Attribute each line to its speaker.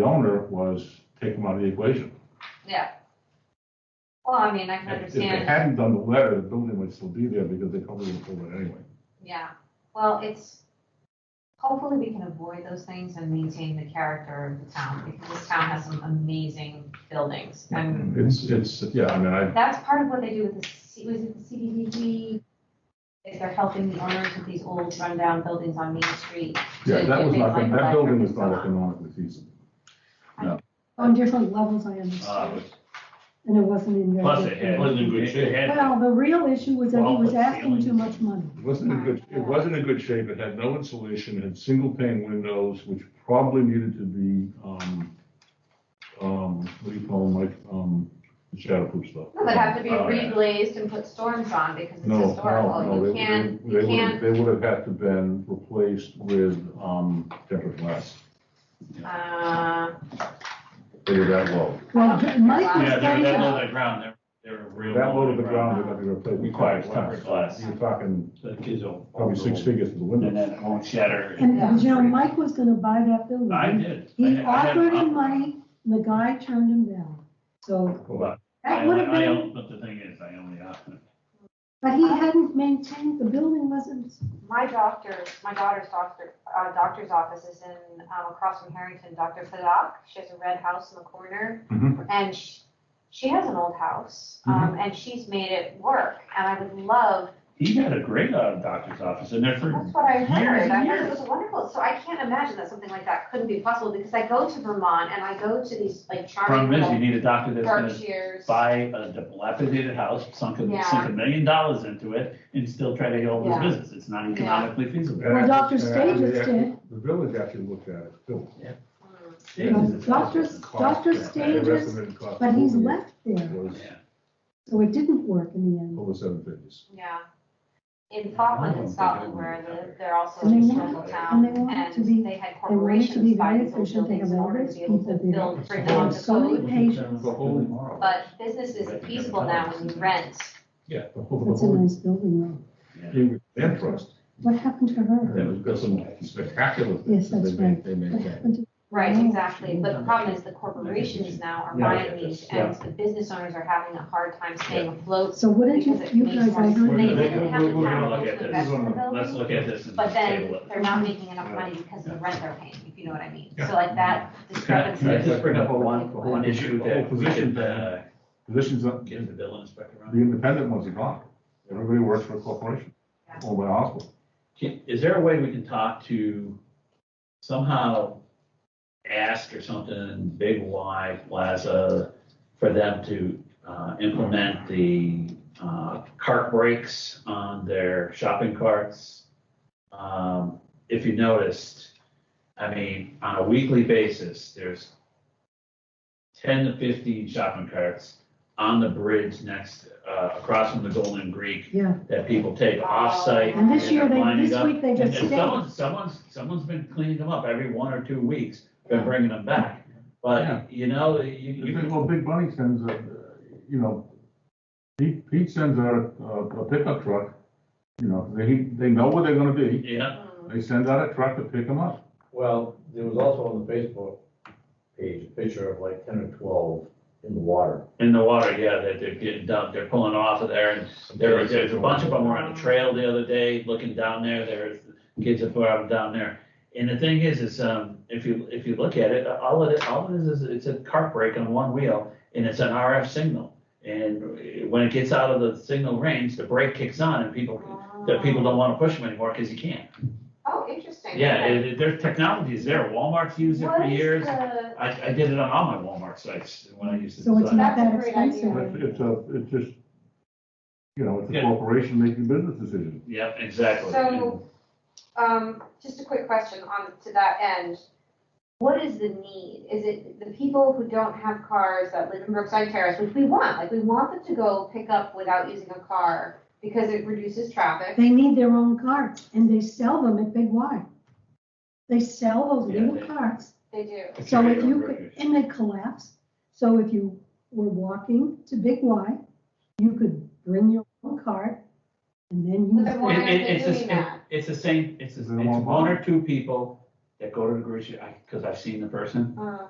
Speaker 1: the owner was take them out of the equation.
Speaker 2: yeah. Well, I mean, I can
Speaker 1: If they
Speaker 2: understand.
Speaker 1: hadn't done the letter, the building would still be there because they probably would have sold it anyway.
Speaker 2: Yeah, well, it's, hopefully we can avoid those things and maintain the character of the town, because this town has some amazing buildings. And
Speaker 1: It's, it's, yeah, I mean, I,
Speaker 2: that's part of what they do with the, C- was it the CDBG? Is they're helping the owners of these old rundown buildings on Main Street.
Speaker 1: yeah,
Speaker 2: to
Speaker 1: that
Speaker 2: get
Speaker 1: was
Speaker 2: things
Speaker 1: not,
Speaker 2: like
Speaker 1: that building was
Speaker 2: electric and
Speaker 1: not
Speaker 2: so on.
Speaker 1: economically feasible.
Speaker 3: On different levels, I
Speaker 4: Uh,
Speaker 3: understand,
Speaker 4: but
Speaker 3: and it wasn't in your.
Speaker 4: Plus it had, wasn't in good shape. It had,
Speaker 3: Well, the real issue was that he
Speaker 4: Well,
Speaker 3: was
Speaker 4: the
Speaker 3: asking too much
Speaker 4: ceilings.
Speaker 3: money.
Speaker 1: It wasn't in good, it wasn't in good shape, it had no insulation, it had single pane windows, which probably needed to be, um, um, what do you call them, like, um, shatterproof stuff.
Speaker 2: No, They'd have to be
Speaker 4: Oh, yeah.
Speaker 2: reglazed and put storms on, because it's
Speaker 1: No, no,
Speaker 2: historical,
Speaker 1: no,
Speaker 2: you
Speaker 1: they-
Speaker 2: can't,
Speaker 1: they,
Speaker 2: you
Speaker 1: they would have,
Speaker 2: can't,
Speaker 1: they would have had to been replaced with, um, tempered glass,
Speaker 2: uh,
Speaker 1: they were that low.
Speaker 3: Well, Mike was
Speaker 4: yeah, they were
Speaker 3: pointing
Speaker 4: that low to
Speaker 3: out,
Speaker 4: the ground, they're, they're real.
Speaker 1: That low
Speaker 4: low
Speaker 1: to the ground, they're gonna be replaced with
Speaker 4: Requires
Speaker 1: tempered
Speaker 4: tempered
Speaker 1: glass,
Speaker 4: glass.
Speaker 1: you're talking
Speaker 4: So the kids will.
Speaker 1: probably six figures for the windows.
Speaker 4: And then it won't shatter.
Speaker 3: and, and, you know, Mike was gonna buy that building.
Speaker 4: I did. I
Speaker 3: He
Speaker 4: had- I had a
Speaker 3: offered him
Speaker 4: problem.
Speaker 3: money, and the guy turned him down, so
Speaker 1: Well,
Speaker 3: that
Speaker 4: I
Speaker 3: would
Speaker 4: only-
Speaker 3: have
Speaker 4: I
Speaker 3: been,
Speaker 4: only- But the thing is, I only offered.
Speaker 3: but he hadn't maintained, the building wasn't,
Speaker 2: My doctor, my daughter's doctor, uh, doctor's office is in, um, across from Harrington, Dr. Fadak. She has a red house in the corner.
Speaker 4: Mm-hmm.
Speaker 1: Mhm.
Speaker 2: And she, she has an old house, um, and she's made it work. And I would love,
Speaker 4: He had a great uh, doctor's office in there for
Speaker 2: that's what I
Speaker 4: years
Speaker 2: heard. I
Speaker 4: and
Speaker 2: heard it
Speaker 4: years.
Speaker 2: was wonderful. So I can't imagine that something like that couldn't be possible because I go to Vermont and I go to these like charming
Speaker 4: Problem is, you
Speaker 2: little
Speaker 4: need a doctor that's gonna
Speaker 2: Berkshires.
Speaker 4: buy a dilapidated house, sunk
Speaker 2: Yeah.
Speaker 4: a, sunk a million dollars into it, and still try to heal his
Speaker 2: Yeah.
Speaker 4: business. It's not economically feasible.
Speaker 3: well,
Speaker 1: Yeah.
Speaker 3: Dr.
Speaker 1: Yeah, yeah.
Speaker 3: Stages did.
Speaker 1: The village actually looked at it too.
Speaker 2: Mm.
Speaker 3: Well,
Speaker 4: Jesus.
Speaker 3: Doctors,
Speaker 1: Cost, yeah,
Speaker 3: Dr.
Speaker 1: and the
Speaker 3: Stages,
Speaker 1: estimated cost
Speaker 3: but he's
Speaker 1: was-
Speaker 3: left there,
Speaker 1: Was
Speaker 4: Yeah.
Speaker 3: so it didn't work in the end.
Speaker 1: over seven figures.
Speaker 2: Yeah. In Falkland,
Speaker 4: Oh,
Speaker 2: in Scotland, where the- they're also a
Speaker 3: And they
Speaker 2: historical
Speaker 1: want-
Speaker 2: town,
Speaker 3: and they want it to
Speaker 2: and
Speaker 3: be-
Speaker 2: they had
Speaker 3: they want it to be
Speaker 2: corporations buy
Speaker 3: very
Speaker 2: these old
Speaker 3: efficient, they
Speaker 2: buildings in
Speaker 3: have all
Speaker 2: order to
Speaker 3: these
Speaker 2: be able to
Speaker 3: people
Speaker 2: build, bring them
Speaker 1: there.
Speaker 2: up to
Speaker 3: So many
Speaker 2: code.
Speaker 3: patients.
Speaker 1: The whole tomorrow.
Speaker 2: But business isn't feasible now when you rent.
Speaker 1: Yeah. The whole, the
Speaker 3: That's a
Speaker 1: whole,
Speaker 3: nice building, though.
Speaker 4: Yeah.
Speaker 1: Cambridge Land Trust,
Speaker 3: What happened to her?
Speaker 1: yeah, we've got some spectacular things
Speaker 3: Yes,
Speaker 1: that they
Speaker 3: that's
Speaker 1: made, they
Speaker 3: What
Speaker 1: maintain.
Speaker 3: happened to?
Speaker 2: Right,
Speaker 3: Oh.
Speaker 2: exactly, but the problem is the corporations now are
Speaker 1: Yeah.
Speaker 2: buying these, and the business owners are having a hard time staying afloat.
Speaker 3: So what did you,
Speaker 2: Because it
Speaker 3: you
Speaker 2: makes
Speaker 3: guys,
Speaker 2: more
Speaker 3: I
Speaker 2: sense.
Speaker 3: heard
Speaker 1: Wait,
Speaker 2: They
Speaker 1: wait,
Speaker 3: that.
Speaker 1: wait.
Speaker 2: didn't have
Speaker 1: we're-
Speaker 2: the
Speaker 1: we're
Speaker 2: capital
Speaker 4: gonna look
Speaker 2: to
Speaker 4: at
Speaker 2: invest
Speaker 1: this.
Speaker 2: in the
Speaker 4: Let's
Speaker 2: building,
Speaker 4: look at this and
Speaker 2: but
Speaker 4: table
Speaker 2: then
Speaker 4: it.
Speaker 2: they're not making enough money because of the rent they're paying, if you know what I mean.
Speaker 1: Yeah.
Speaker 2: So like that
Speaker 4: Can I-
Speaker 2: discrepancy.
Speaker 4: can I just
Speaker 2: is
Speaker 4: bring up
Speaker 2: really
Speaker 4: one,
Speaker 2: quick.
Speaker 4: one issue that we should, uh,
Speaker 1: Positions, up-
Speaker 4: get the
Speaker 1: the
Speaker 4: bill inspector on?
Speaker 1: independent ones are gone. Everybody works for a corporation,
Speaker 2: Yeah.
Speaker 1: owned by a hospital.
Speaker 4: Can- Is there a way we can talk to somehow ask or something, Big Y Plaza, for them to, uh, implement the, uh, cart brakes on their shopping carts? Um, if you noticed, I mean, on a weekly basis, there's ten to fifteen shopping carts on the bridge next, uh, across from the Golden Greek
Speaker 3: Yeah,
Speaker 4: that people take off-site.
Speaker 3: and this year, they,
Speaker 4: lining
Speaker 3: this
Speaker 4: up.
Speaker 3: week, they
Speaker 4: And
Speaker 3: just
Speaker 4: and
Speaker 3: stayed.
Speaker 4: someone, someone's, someone's been cleaning them up every one or two weeks, been bringing them back.
Speaker 1: Yeah.
Speaker 4: But, you know, you, you
Speaker 1: Even,
Speaker 4: can,
Speaker 1: well, Big Bunny sends, a, uh, you know, Pete, Pete sends out a- a pickup truck, you know, they, they know where they're gonna be.
Speaker 4: yeah,
Speaker 2: Mm.
Speaker 1: They send out a truck to pick them up.
Speaker 5: Well, there was also on the Facebook page, a picture of like ten or twelve in the water.
Speaker 4: in the water, yeah, that they're getting dumped, they're pulling off of there. And there, there's a bunch of them were on the trail the other day, looking down there, there's kids that were out down there. And the thing is, is, um, if you, if you look at it, all it, all it is, is it's a cart brake on one wheel, and it's an RF signal. And when it gets out of the signal range, the brake kicks on and people that people don't want to push them anymore because you can't.
Speaker 2: Oh, interesting.
Speaker 4: Yeah,
Speaker 2: Okay.
Speaker 4: it, it- their technology is there. Walmart's used it for
Speaker 2: What is
Speaker 4: years.
Speaker 2: the-
Speaker 4: I, I did it on all my Walmart sites when I used to
Speaker 3: So it's
Speaker 4: design.
Speaker 3: not
Speaker 2: That's
Speaker 3: that
Speaker 2: a great idea.
Speaker 1: It's,
Speaker 3: expensive.
Speaker 1: it's a, it's just, you know, it's a
Speaker 4: Yeah.
Speaker 1: corporation making business decisions.
Speaker 4: Yep, exactly.
Speaker 2: So, um, just a quick question on, to that end. What is the need? Is it the people who don't have cars that live in Brookside Terrace, which we want, like, we want them to go pick up without using a car because it reduces traffic?
Speaker 3: They need their own carts, and they sell them at Big Y. They sell those
Speaker 4: Yeah,
Speaker 3: little
Speaker 4: they-
Speaker 3: carts,
Speaker 2: They do.
Speaker 4: It's
Speaker 3: so
Speaker 4: a
Speaker 3: if you, could
Speaker 4: great-
Speaker 3: and they collapse. So if you were walking to Big Y, you could bring your own cart, and then
Speaker 2: But then why
Speaker 3: you.
Speaker 2: aren't
Speaker 4: It- it-
Speaker 2: they
Speaker 4: it's the
Speaker 2: doing
Speaker 4: same-
Speaker 2: that?
Speaker 4: It's the same, it's, the-
Speaker 1: Is
Speaker 4: it's
Speaker 1: it Walmart?
Speaker 4: one or two people that go to the grocery, I, because I've seen the person,
Speaker 2: Uh,